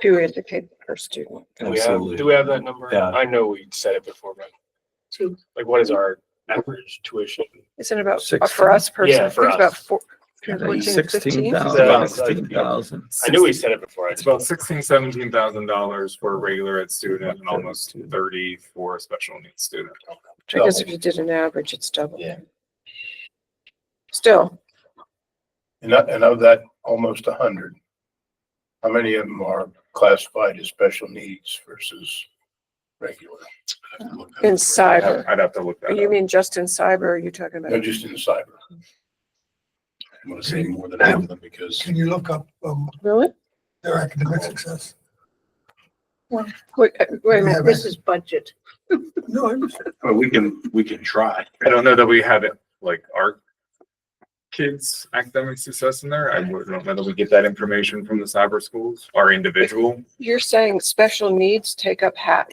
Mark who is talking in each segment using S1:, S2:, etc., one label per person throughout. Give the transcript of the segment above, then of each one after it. S1: to educate our student.
S2: Do we have, do we have that number?
S3: Yeah.
S2: I know we said it before, but
S1: Two.
S2: like, what is our average tuition?
S1: Isn't it about, uh,
S3: Six-
S1: for us personally, I
S2: Yeah, for
S1: think it's about
S2: us.
S1: four, between 15?
S3: Sixteen thousand,
S2: Yeah.
S3: about sixteen thousand.
S2: I knew we said it before. I
S4: It's about sixteen, seventeen thousand dollars for a regular ed student and almost thirty for a special needs student.
S1: I guess if you did an average, it's double.
S5: Yeah.
S1: Still,
S5: And of, and of that, almost a hundred. How many of them are classified as special needs versus regular?
S1: in cyber,
S4: I'd have to look that
S1: you
S4: up.
S1: mean just in cyber, or are you talking
S5: No,
S1: about?
S5: just in cyber. I want to say more than half of them because
S6: Can you look up um
S1: Really?
S6: their academic success?
S1: Wait, uh, wait a minute,
S6: Yeah,
S1: this is budget.
S6: No, I'm
S5: Well, we can, we can try.
S4: I don't know that we have it, like our kids' academic success in there. I would- don't know that we get that information from the cyber schools, our individual.
S1: You're saying special needs take up half.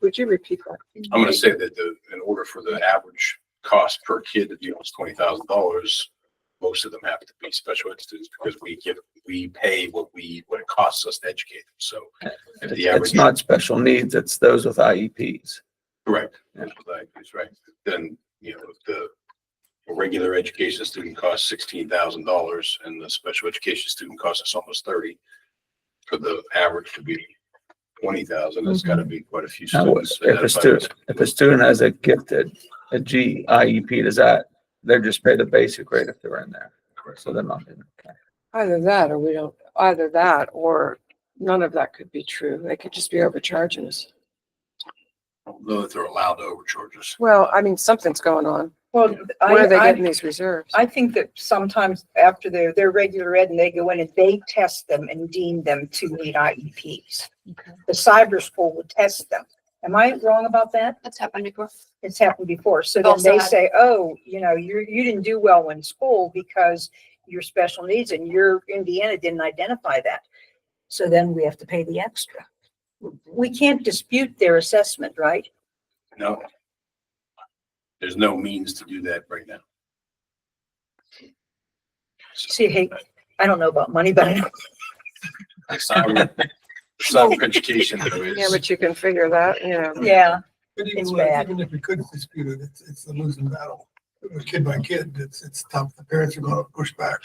S1: Would you repeat that?
S5: I'm gonna say that the, in order for the average cost per kid to be almost twenty thousand dollars, most of them have to be special ed students because we give, we pay what we, what it costs us to educate them. So if
S3: It's
S5: the average,
S3: not special needs, it's those with E IEPs.
S5: correct, that's what I- that's right, then, you know, if the regular education student costs sixteen thousand dollars and the special education student costs us almost thirty. For the average to be twenty thousand, it's gotta be quite a few
S3: Now,
S5: students.
S3: Mm-hmm. if a student, if a student has a gifted, a G IEP, does that, they're just paid the basic rate if they're in there. So they're not in. okay.
S1: Either that, or we don't, either that, or none of that could be true. They could just be overcharging us.
S5: Though that they're allowed to overcharge us.
S1: Well, I mean, something's going on.
S7: Well,
S1: Where are they
S7: I,
S1: getting
S7: I,
S1: these reserves?
S7: I think that sometimes after they're, they're regular ed and they go in and they test them and deem them to meet IEPs.
S1: Okay.
S7: The cyber school would test them. Am I wrong about that?
S8: That's happened before.
S7: It's happened before. So then
S8: Also
S7: they
S8: had-
S7: say, oh, you know, you're, you didn't do well in school because your special needs and your Indiana didn't identify that. So then we have to pay the extra. We can't dispute their assessment, right?
S5: No. There's no means to do that right now.
S7: See, hey, I don't know about money, but I know
S5: It's not- it's not education though,
S1: Yeah,
S5: it's,
S1: but you can figure that, you know.
S7: Yeah,
S6: But
S7: It's
S6: even,
S7: bad.
S6: with- even if we could dispute it, it's, it's a losing battle. Kid by kid, it's, it's tough. The parents are gonna push back.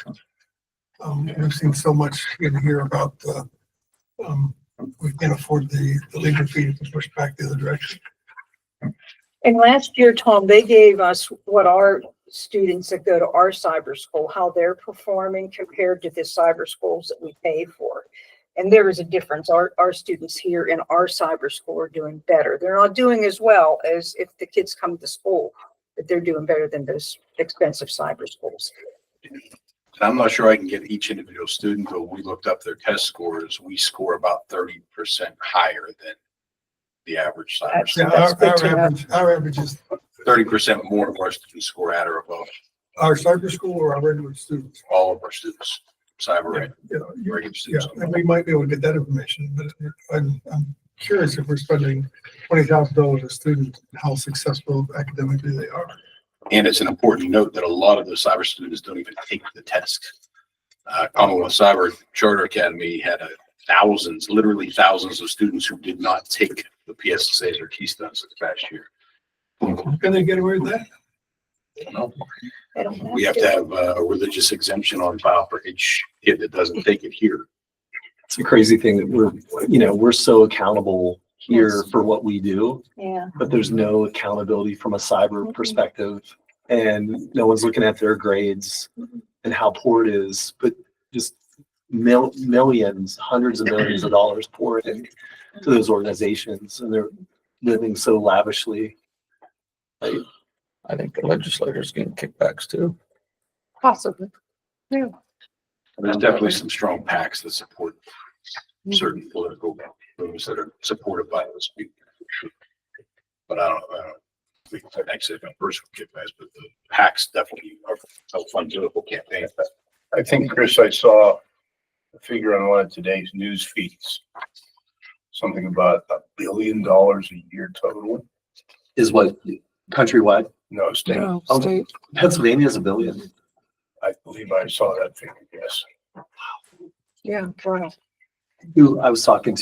S6: Um, we've seen so much in here about, uh, um, we can't afford the, the legal fee to push back the other direction.
S7: and last year, Tom, they gave us what our students that go to our cyber school, how they're performing compared to the cyber schools that we pay for. And there is a difference. Our, our students here in our cyber school are doing better. They're not doing as well as if the kids come to school, but they're doing better than those expensive cyber schools.
S5: and I'm not sure I can get each individual student, but we looked up their test scores, we score about thirty percent higher than the average cyber
S7: That's-
S6: Yeah,
S5: student.
S6: our,
S1: good
S6: our
S1: to know.
S6: average, our average is,
S5: Thirty percent more of our students score at or above
S6: our cyber school or our regular students.
S5: all of our students, cyber and
S6: You know, you-
S5: regular
S6: Yeah,
S5: students.
S6: and we might be able to get that information, but I'm, I'm curious if we're spending twenty thousand dollars a student, how successful academically they are.
S5: And it's an important note that a lot of those cyber students don't even take the test. Uh, Commonwealth Cyber Charter Academy had a thousands, literally thousands of students who did not take the PSSAs or Keystones this past year.
S6: Can they get away with that?
S7: They don't
S5: We have to have uh, a religious exemption on file for each kid that doesn't take it here.
S9: it's a crazy thing that we're, you know, we're so accountable here for what we do,
S7: Yeah.
S9: but there's no accountability from a cyber perspective. And no one's looking at their grades and how poor it is, but just mil- millions, hundreds of millions of dollars poured in to those organizations and they're living so lavishly.
S3: I think the legislators getting kickbacks too.
S1: Possibly. Yeah.
S5: There's definitely some strong PACs that support certain political moves that are supported by those people. But I don't, I don't, we can actually have a personal kickbacks, but the PACs definitely are a fun political campaign.
S10: I think, Chris, I saw a figure on one of today's news feeds. Something about a billion dollars a year total.
S9: Is what countrywide,
S10: No, state,
S1: No,
S9: Oh.
S1: state.
S9: Pennsylvania is a billion.
S10: I believe I saw that figure, yes.
S1: Yeah, wow.
S9: Who I was talking to